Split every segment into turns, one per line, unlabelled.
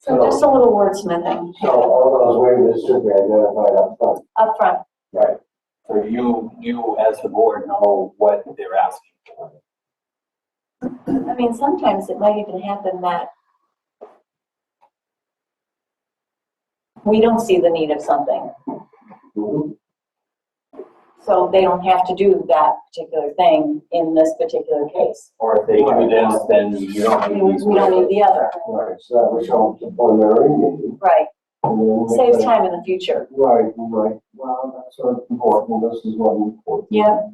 So just a little wordsmithing
So all those waivers should be identified up front,
up front.
right?
So you, you as the board know what they're asking for.
I mean, sometimes it might even happen that we don't see the need of something,
Mhm.
so they don't have to do that particular thing in this particular case.
Or if they do this, then you
I
don't
mean,
need these.
We don't need the other,
Right, so that would show up to preliminary meeting.
right?
E and then we-
Saves time in the future.
Right, right, well, that's what's important, this is what we.
Yeah.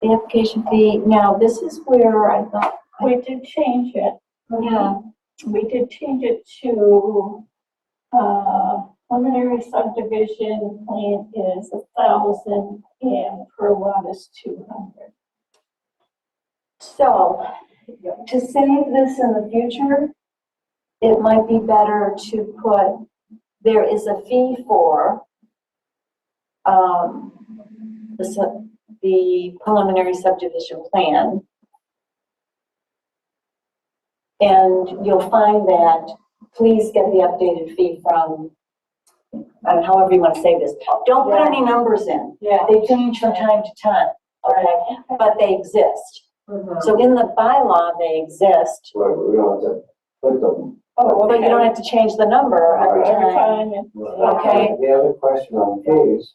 The application fee, now this is where I thought,
We did change it.
yeah,
We did change it to, uh, preliminary subdivision plan is a thousand and per lot is two hundred.
so to save this in the future, it might be better to put, there is a fee for um, the sub- the preliminary subdivision plan. And you'll find that, please get the updated fee from, uh, however you want to say this. Don't put any numbers in.
Yeah.
They change from time to time, okay, but they exist.
Oh,
So in the bylaw, they exist,
Right, we don't have to put them.
Oh,
but you don't have to change the number every
Every
time.
time, and
Okay.
The other question on fees,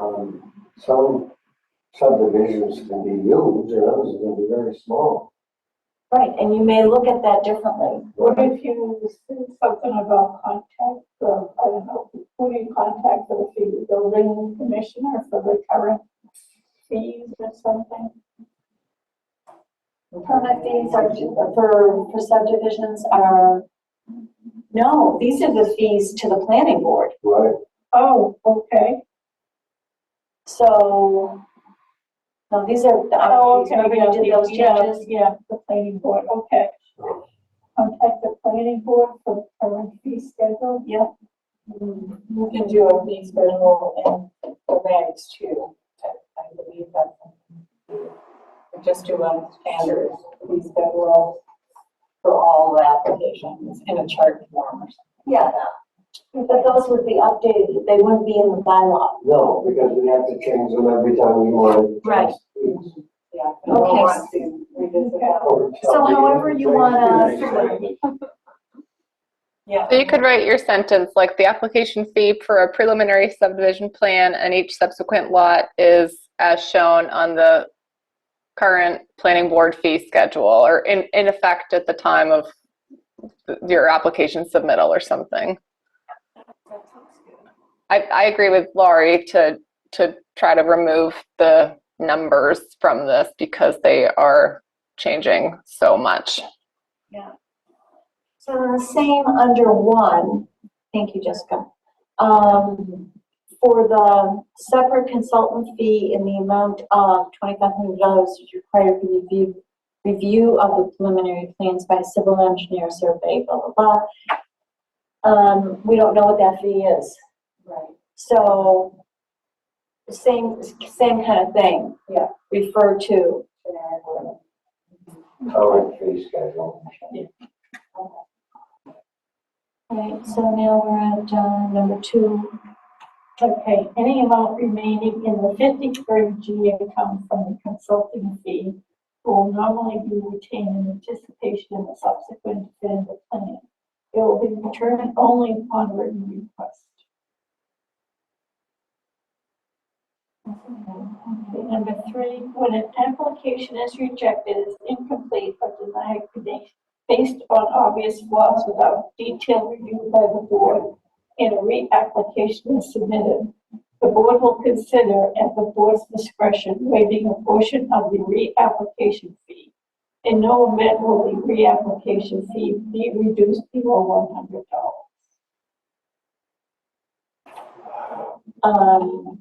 um, some subdivisions can be huge and others can be very small.
Right, and you may look at that differently.
what if you said something about contact, of I don't know, who do you contact for the fee, the building commissioner for the current fees or something?
Permit fees are, for, for subdivisions are, no, these are the fees to the planning board.
Right,
Oh, okay,
So, no, these are the
oh,
other fees,
okay,
remember
yeah,
you did those
yeah,
changes?
Yeah, the planning board, okay. contact the planning board for current fee schedule.
Yep.
You can do a fee schedule and the rags too, I I believe that. Just do a standard fee schedule for all the applications in a chart form or
Yeah, but those would be updated, they wouldn't be in the bylaw.
no, because we have to change them every time we want. to
Right.
change fees.
something. Yeah. and we'll
Okay.
want to revisit that.
Or
So
tell me
however you
change
wanna-
fees, right?
Yeah.
So you could write your sentence like the application fee for a preliminary subdivision plan and each subsequent lot is as shown on the current planning board fee schedule or in, in effect at the time of th- your application submittal or something. I, I agree with Laurie to, to try to remove the numbers from this because they are changing so much.
So the same under one, thank you, Jessica. Um, for the separate consultant fee in the amount of twenty-five hundred dollars is required for review, review of the preliminary plans by civil engineer survey, blah, blah, blah. Um, we don't know what that fee is.
Right.
So same, same kind of thing.
Yeah.
Refer to.
Generic one.
Current fee schedule.
Right, so now we're at, uh, number two.
Okay, any amount remaining in the fifty-third G account from the consulting fee will normally be retained in anticipation of a subsequent definitive plan. It will be returned only upon written request. Okay, Number three, when an application is rejected, is incomplete or denied ba- based on obvious flaws without detailed review by the board and a reapplication is submitted, the board will consider at the board's discretion waiving a portion of the reapplication fee. In no event will the reapplication fee be reduced below one hundred dollars.
Um,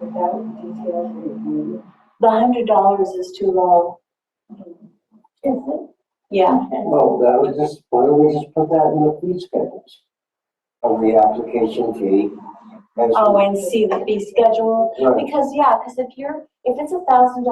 Without detailed review.
the hundred dollars is too low.
Is it?
Yeah,
Okay.
No, that was just, why don't we just put that in the fee schedules? Of the application fee. as-
oh, and see the fee schedule,
Right.
because, yeah, because if you're, if it's a thousand